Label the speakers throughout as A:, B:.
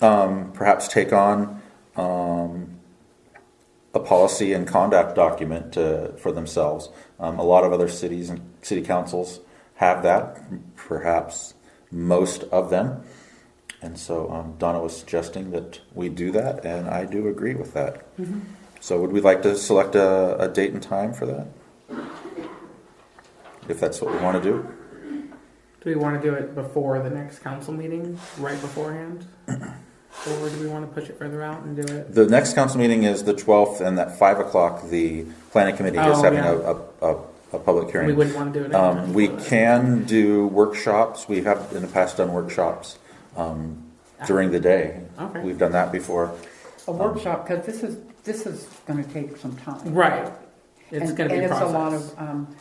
A: um, perhaps take on um, a policy and conduct document to, for themselves. Um, a lot of other cities and city councils have that, perhaps most of them. And so um, Donna was suggesting that we do that, and I do agree with that. So, would we like to select a, a date and time for that? If that's what we want to do?
B: Do we want to do it before the next council meeting, right beforehand? Or do we want to push it further out and do it?
A: The next council meeting is the 12th, and at 5 o'clock, the planning committee is
B: Oh,
A: having
B: yeah.
A: a, a, a, a public hearing.
B: We wouldn't want to do it.
A: Um,
B: anytime.
A: we can do workshops. We have in the past done workshops um, during the day.
B: Ah. Okay.
A: We've done that before.
B: Um,
C: a workshop, because this is, this is going to take some time.
B: Right. It's
C: And-
B: going to be a
C: And it's a lot
B: process.
C: of, um,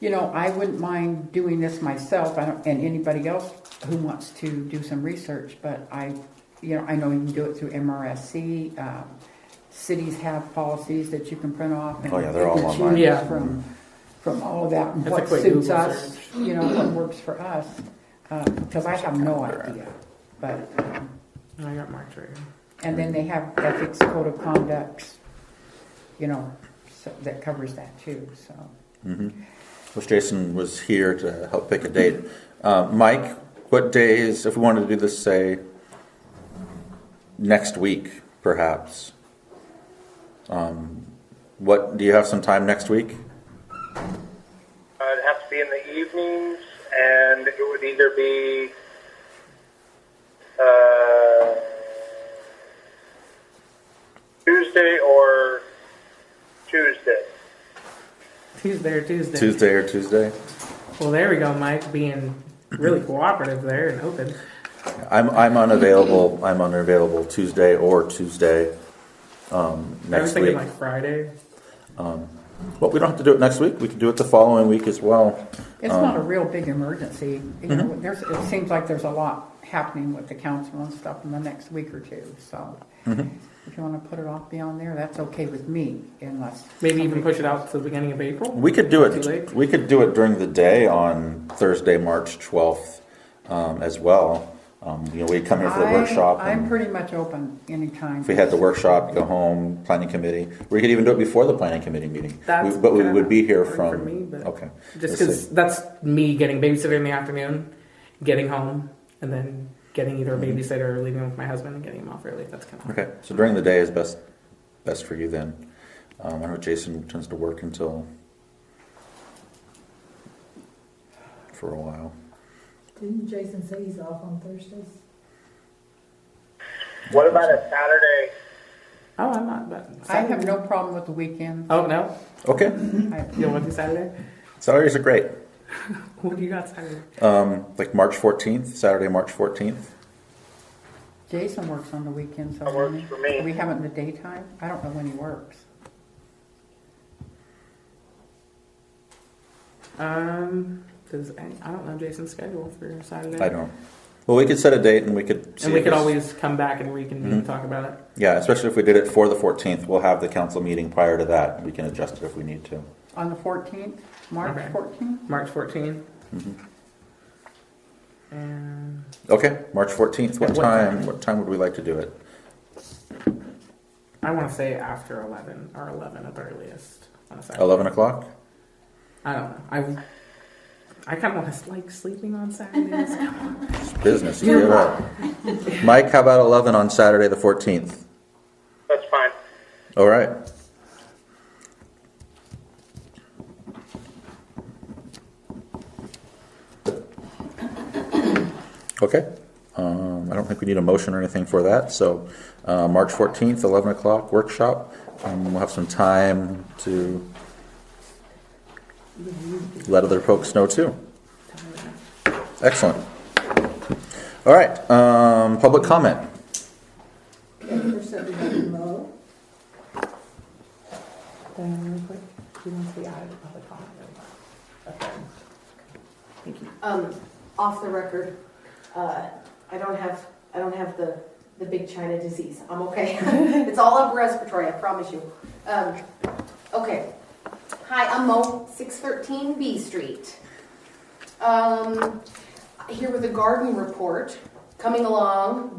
C: you know, I wouldn't mind doing this myself, I don't, and anybody else who wants to do some research, but I, you know, I know you can do it through MRSC. um, Cities have policies that you can print off. and
A: Oh, yeah, they're all
C: you can choose
A: online.
B: Yeah.
C: From, from all of that, and
B: That's a
C: what
B: quick
C: suits
B: Google
C: us,
B: search.
C: you know, what works for us, because I have no idea, but, um,
B: I got marked right here.
C: and then they have ethics code of conducts, you know, so that covers that too, so.
A: Which Jason was here to help pick a date. Uh, Mike, what days, if we wanted to do this, say, next week, perhaps? Um, what, do you have some time next week?
D: Uh, it'd have to be in the evenings, and it would either be uh, Tuesday or Tuesday.
B: Tuesday or Tuesday.
A: Tuesday or Tuesday?
B: Well, there we go, Mike, being really cooperative there and open.
A: I'm, I'm unavailable, I'm unavailable Tuesday or Tuesday, um,
B: I was
A: next
B: thinking
A: week.
B: like Friday.
A: Well, we don't have to do it next week, we can do it the following week as well.
C: It's not a real big emergency, you know, there's, it seems like there's a lot happening with the council and stuff in the next week or two, so. If you wanna put it off beyond there, that's okay with me, unless.
B: Maybe even push it out to the beginning of April.
A: We could do
B: Too
A: it.
B: late?
A: We could do it during the day on Thursday, March twelfth, um, as well. Um, you know, we come here for the
C: I-
A: workshop.
C: I'm
A: and
C: pretty much open anytime.
A: If we had the workshop, go home, planning committee, we could even do it before the planning committee meeting.
B: That's
A: We- But we
B: kinda
A: would be here
B: hard for me,
A: from,
B: but-
A: okay.
B: Just
A: Let's see.
B: because that's me getting babysitter in the afternoon, getting home, and then getting either a babysitter or leaving with my husband and getting him off early. That's kind of
A: Mm-hmm. Okay, so during the day is best, best for you then. Um, I know Jason tends to work until for a while.
E: Didn't Jason say he's off on Thursdays?
D: What about a Saturday?
B: Oh, I'm not. But
C: I have no problem with the weekend.
B: Oh no,
A: Okay,
C: I-
B: you don't want to do Saturday?
A: salaries are great.
B: What do you got Saturday?
A: Um, like March fourteenth, Saturday, March fourteenth.
C: Jason works on the weekends, so.
D: That works
C: doesn't he?
D: for me.
C: We have it in the daytime, I don't know when he works.
B: Um, does any, I don't know Jason's schedule for Saturday.
A: I don't. Well, we could set a date and we could. See Mm-hmm.
B: And we
A: if
B: could
A: it's-
B: always come back and reconvene and talk about it.
A: Yeah, especially if we did it for the 14th, we'll have the council meeting prior to that. We can adjust it if we need to.
C: On the fourteenth,
B: Okay.
C: March fourteenth?
B: March 14th.
A: Mm-hmm.
B: And
A: Okay, March 14th. What
B: At what time?
A: time? What time would we like to do it?
B: I want to say after 11 or 11 at the earliest. On a Saturday.
A: 11 o'clock?
B: I don't know. I I kind of want to like sleeping on Saturdays.
A: It's business. Give it up. Mike, how about 11 on Saturday the 14th?
D: That's fine.
A: All right. Okay. Um, I don't think we need a motion or anything for that. So, uh, March 14th, 11 o'clock workshop. Um, we'll have some time to let other folks know too. Excellent. All right. Um, public comment.
E: Okay, first up, we have Mo. Diane, real quick, do you want to be out of the public comment? Okay.
F: Um, off the record, uh, I don't have, I don't have the, the big China disease. I'm okay. It's all up respiratory, I promise you. Um, okay. Hi, I'm Mo, six thirteen B Street. Um, here with a garden report, coming along